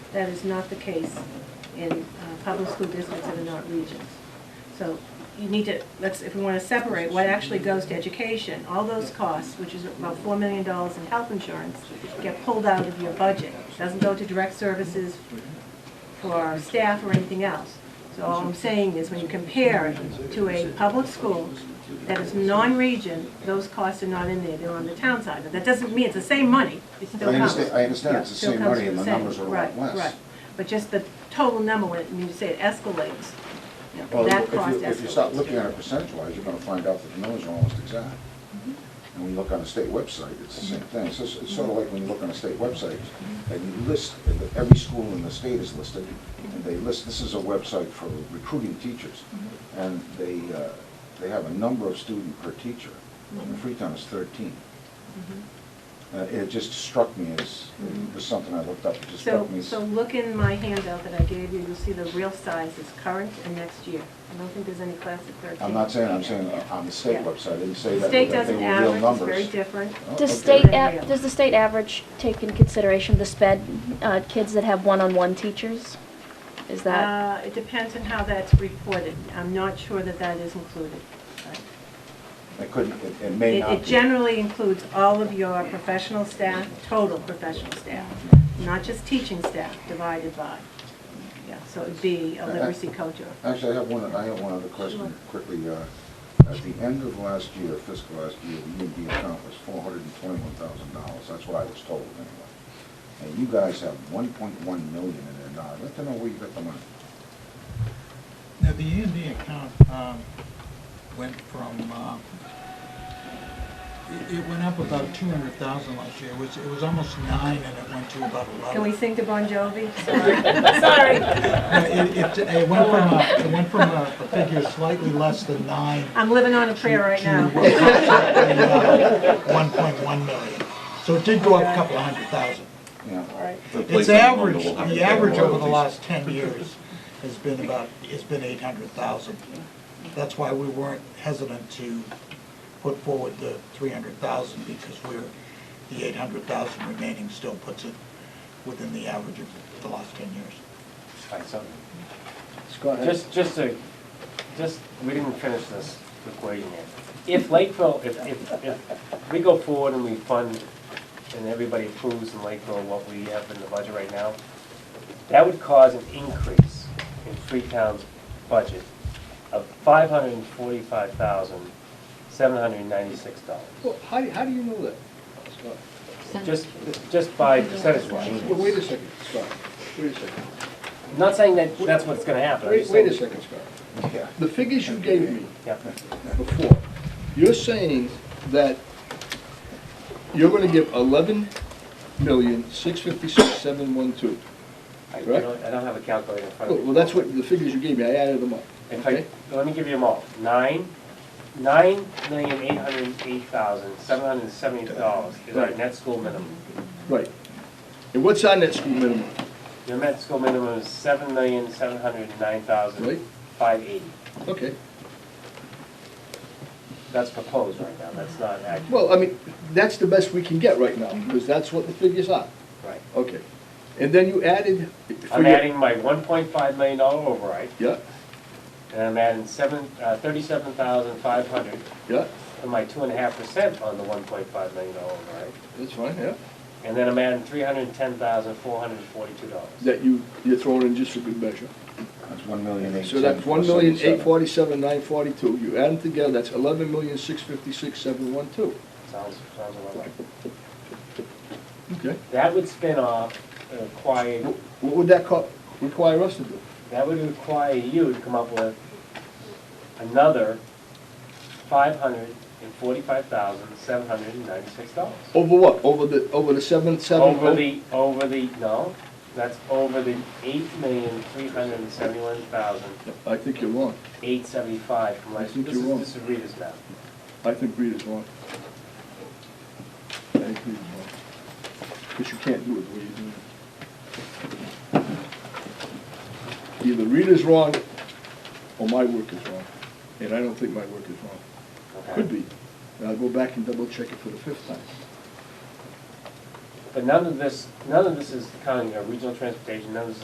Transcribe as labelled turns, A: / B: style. A: That is not the case in uh, public school districts that are not regions. So you need to, let's, if we want to separate what actually goes to education, all those costs, which is about four million dollars in health insurance, get pulled out of your budget. Doesn't go to direct services for our staff or anything else. So all I'm saying is when you compare it to a public school that is non-region, those costs are not in there, they're on the town side. But that doesn't mean it's the same money, it
B: I
A: still counts.
B: understand, I understand it's the
A: Still
B: same
A: comes
B: money
A: from
B: and the
A: same-
B: numbers are a lot
A: Right, right.
B: less.
A: But just the total number, when when you say it escalates, you know,
B: Well,
A: that
B: if
A: cost
B: you,
A: escalates.
B: if you start looking at
A: too.
B: it percentage-wise, you're gonna find out that the numbers are almost exact. And when you look on the state website, it's the
A: Mm-hmm.
B: same thing. It's just- it's sort of like when you look on a state website, and you list, every school in the state is listed, and they list, this is a website for recruiting teachers.
A: Mm-hmm.
B: And they, uh, they have a number of student per teacher,
A: Mm-hmm.
B: and Freetown is thirteen. Uh, It just struck me as, it was something I looked up, it just
A: Mm-hmm. So,
B: struck me as.
A: so look in my handout that I gave you, you'll see the real size is current and next year. I don't think there's any class at 13.
B: I'm not saying, I'm saying on the state
A: Yeah.
B: website, I didn't say
A: The
B: that,
A: State
B: that they
A: doesn't
B: were real
A: average, it's
B: numbers.
A: very different.
B: Oh, okay.
C: Does state,
A: Yeah.
C: av- does the state average take in consideration the sped, uh, kids that have one-on-one teachers? Is that,
A: Uh, It depends on how that's reported. I'm not sure that that is included.
B: I couldn't, it- it may
A: It
B: not
A: it
B: be.
A: generally includes all of your professional staff, total professional staff, not just teaching staff divided by. Yeah, so it'd be a literacy coach or,
B: Uh, Actually, I have one, I have one other question quickly. uh, At the end of last year, fiscal last year, the UMD account was four hundred and twenty-one thousand dollars, that's what I was told anyway. And you guys have one point one million in there now, I'd like to know where you got the money.
D: Now, the E and D account um, went from, uh, it- it went up about 200,000 last year. It was, it was almost nine and it went to about 11.
A: can we sing to Bon Jovi?
D: No, It, it- it went from, a- it went from uh, a a figure slightly less than nine
A: I'm living on a prayer right now.
D: to 1.1 million. So it did go up a couple of hundred thousand.
B: Yeah.
A: All right.
D: It's average, the average over the last 10 years has been about, has been 800,000. That's why we weren't hesitant to put forward the 300,000, because we're, the 800,000 remaining still puts it within the average of the last 10 years.
E: Find something.
B: Go ahead.
E: Just, just to, just, we didn't finish this equation yet. If Lakeville, if, if, if we go forward and we fund, and everybody approves in Lakeville what we have in the budget right now, that would cause an increase in Freetown's budget of five hundred and forty-five thousand, seven hundred and ninety-six dollars.
F: Well, how, do- how do you know that, Scott?
E: Just, just by percentage
F: Well, wait a
E: wise.
F: second, Scott, wait a second.
E: I'm Not saying that that's what's gonna happen. I'm
F: Wait,
E: just
F: wait a
E: saying-
F: second, Scott.
B: Yeah.
F: The figures you gave me
E: Yeah.
F: before, you're saying that you're gonna give eleven million, six fifty-six, seven one two.
E: I I
F: Correct.
E: don't, I don't have a calculator in front of me.
F: Well, that's what, the figures you gave me, I added them up,
E: In
F: okay?
E: fact, let me give you them all. Nine, nine million eight hundred and eight thousand, seven hundred and seventy dollars is our
F: Right.
E: net school minimum.
F: Right. And what's our net school minimum,
E: Your net school minimum is seven million seven hundred and nine
F: Right.
E: thousand five eighty.
F: okay?
E: That's proposed right now, that's not actual.
F: Well, I mean, that's the best we can get right now,
E: Mm-hmm.
F: because that's what the figures are,
E: Right.
F: okay? And then you added. for
E: I'm
F: your-
E: adding my one point five million dollar override,
F: Yeah,
E: and I'm adding seven, uh, thirty-seven thousand five hundred
F: yeah,
E: for my two and a half percent on the one point five million dollar override.
F: that's fine, yeah.
E: And then I'm adding three hundred and ten thousand four hundred and forty-two dollars.
F: that you, you're throwing in just for good measure.
B: That's one million eight.
F: So that's one million, eight forty-seven, nine forty-two, you add them together, that's eleven million, six fifty-six, seven one two.
E: Sounds, sounds about right.
F: Okay.
E: That would spin off, and require,
F: Wh- What would that co- require us to do?
E: that would require you to come up with another five hundred and forty-five thousand, seven hundred and ninety-six dollars.
F: Over what? Over the, over the seven, seven? oh?
E: Over the, over the, no, that's over the eight million, three hundred and seventy-one thousand,
F: I think you're wrong.
E: eight seventy-five from
F: I
E: last,
F: think
E: this
F: you're
E: is,
F: wrong.
E: this is Rita's now.
F: I think Rita's wrong. I think Rita's wrong. Because you can't do it the way you're doing it. Either Rita's wrong, or my work is wrong. And I don't think my work is wrong.
E: Okay.
F: Could be. And I'll go back and double check it for the fifth time.
E: But none of this, none of this is counting our regional transportation, none of this is